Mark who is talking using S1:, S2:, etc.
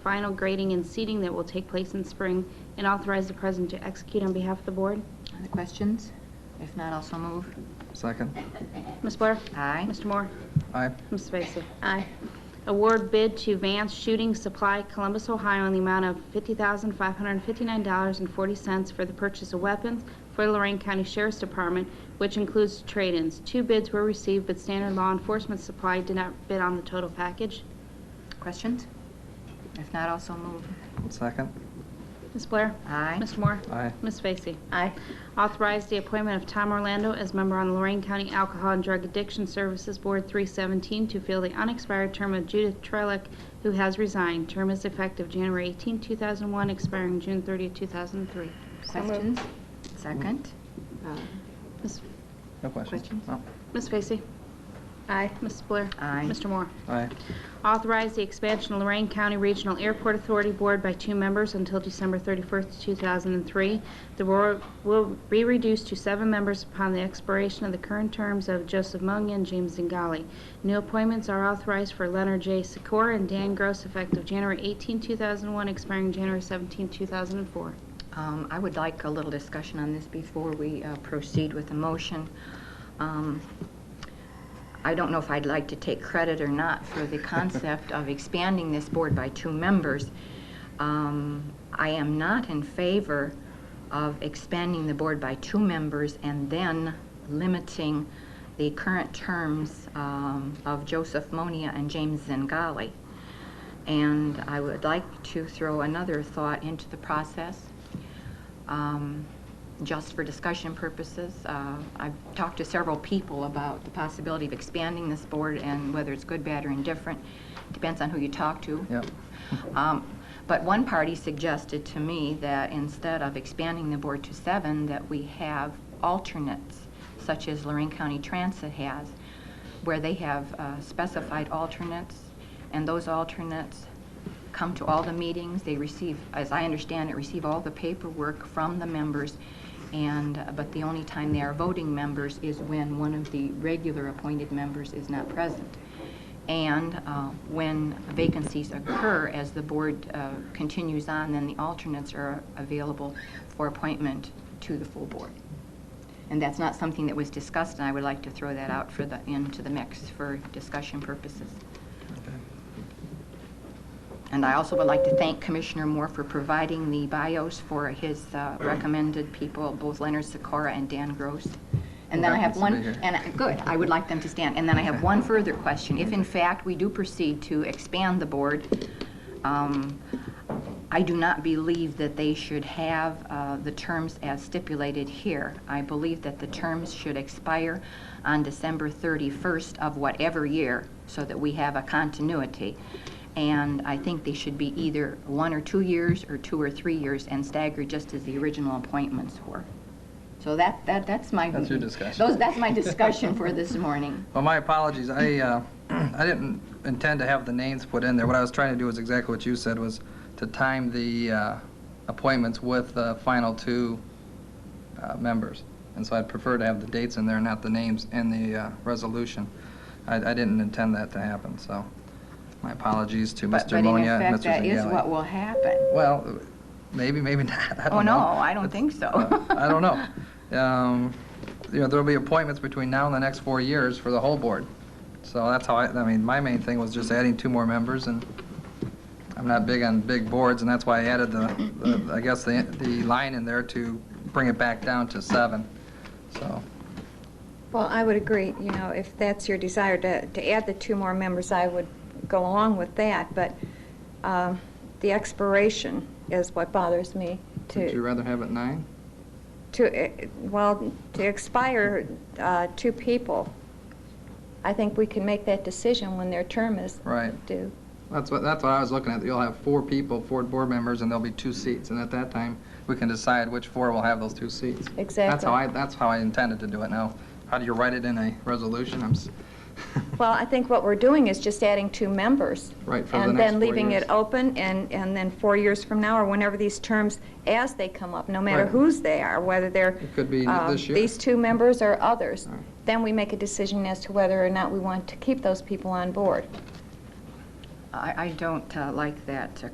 S1: final grading and seating that will take place in spring, and authorize the president to execute on behalf of the board.
S2: Other questions? If not, also move.
S3: Second.
S1: Ms. Blair?
S2: Aye.
S1: Mr. Moore?
S3: Aye.
S1: Ms. Vacy? Aye. Award bid to Vance Shooting Supply Columbus, Ohio in the amount of $50,559.40 for the purchase of weapons for the Lorraine County Sheriff's Department, which includes trade-ins. Two bids were received, but Standard Law Enforcement Supply did not bid on the total package.
S2: Questions? If not, also move.
S3: Second.
S1: Ms. Blair?
S2: Aye.
S1: Mr. Moore?
S3: Aye.
S1: Ms. Vacy?
S2: Aye.
S1: Authorize the appointment of Tom Orlando as member on the Lorraine County Alcohol and Drug Addiction Services Board 317 to fill the unexpired term of Judith Trelick, who has resigned. Term is effective January 18, 2001, expiring June 30, 2003.
S2: Questions? Second.
S1: Ms.
S3: No questions?
S2: Questions?
S3: No.
S1: Ms. Vacy? Aye. Ms. Blair?
S2: Aye.
S1: Mr. Moore?
S3: Aye.
S1: Authorize the expansion of Lorraine County Regional Airport Authority Board by two members until December 31st, 2003. The board will be reduced to seven members upon the expiration of the current terms of Joseph Mungy and James Zingali. New appointments are authorized for Leonard J. Sikora and Dan Gross effective January 18, 2001, expiring January 17, 2004.
S2: Um, I would like a little discussion on this before we uh, proceed with the motion. Um, I don't know if I'd like to take credit or not for the concept of expanding this board by two members. Um, I am not in favor of expanding the board by two members and then limiting the current terms um, of Joseph Monia and James Zingali. And I would like to throw another thought into the process, um, just for discussion purposes. Uh, I've talked to several people about the possibility of expanding this board and whether it's good, bad, or indifferent. Depends on who you talk to.
S3: Yep.
S2: Um, But one party suggested to me that instead of expanding the board to seven, that we have alternates, such as Lorraine County Transit has, where they have uh, specified alternates, and those alternates come to all the meetings, they receive, as I understand it, receive all the paperwork from the members, and, uh, but the only time they are voting members is when one of the regular appointed members is not present. And uh, when vacancies occur, as the board uh, continues on, then the alternates are available for appointment to the full board. And that's not something that was discussed, and I would like to throw that out for the, into the mix for discussion purposes.
S3: Okay.
S2: And I also would like to thank Commissioner Moore for providing the bios for his uh, recommended people, both Leonard Sikora and Dan Gross. And then I have one,
S3: Happens to be here.
S2: and, I- good, I would like them to stand. And then I have
S3: Okay.
S2: one further question. If in fact we do proceed to expand the board, um, I do not believe that they should have uh, the terms as stipulated here. I believe that the terms should expire on December 31st of whatever year, so that we have a continuity. And I think they should be either one or two years, or two or three years, and staggered just as the original appointments were. So that, that, that's my...
S3: That's your discussion.
S2: Those, that's my discussion for this morning.
S3: Well, my apologies. I, uh, I didn't intend to have the names put in there. What I was trying to do is exactly what you said, was to time the uh, appointments with the final two uh, members. And so I'd prefer to have the dates in there, not the names in the uh, resolution. I, I didn't intend that to happen, so my apologies to
S2: But-
S3: Mr. Monia and Mr. Zingali.
S2: But in effect, that is what will happen.
S3: Well, maybe, maybe not. I
S2: Oh,
S3: don't know.
S2: no, I don't think so.
S3: Uh, I don't know. Um, You know, there'll be appointments between now and the next four years for the whole board. So that's how I, I mean, my main thing was just adding two more members, and I'm not big on big boards, and that's why I added the, the- I guess, the, the line in there to bring it back down to seven. So,
S4: Well, I would agree, you know, if that's your desire to, to add the two more members, I would go along with that, but um, the expiration is what bothers me
S3: would you
S4: to,
S3: rather have it nine?
S4: to, eh, well, to expire uh, two people. I think we can make that decision when their term is
S3: Right.
S4: due.
S3: That's what, that's what I was looking at. You'll have four people, four board members, and there'll be two seats, and at that time, we can decide which four will have those two seats. That's
S4: Exactly.
S3: how I, that's how I intended to do it. Now, how do you write it in a resolution? I'm, s-
S4: Well, I think what we're doing is just adding two members.
S3: Right, for the next
S4: And then
S3: four
S4: leaving
S3: years.
S4: it open, and, and then four years from now, or whenever these terms, as they come up, no matter
S3: Right.
S4: whose they are, whether they're...
S3: It could be
S4: um,
S3: this year.
S4: These two members or others,
S3: Right.
S4: then we make a decision as to whether or not we want to keep those people on board.
S2: I, I don't uh, like that uh,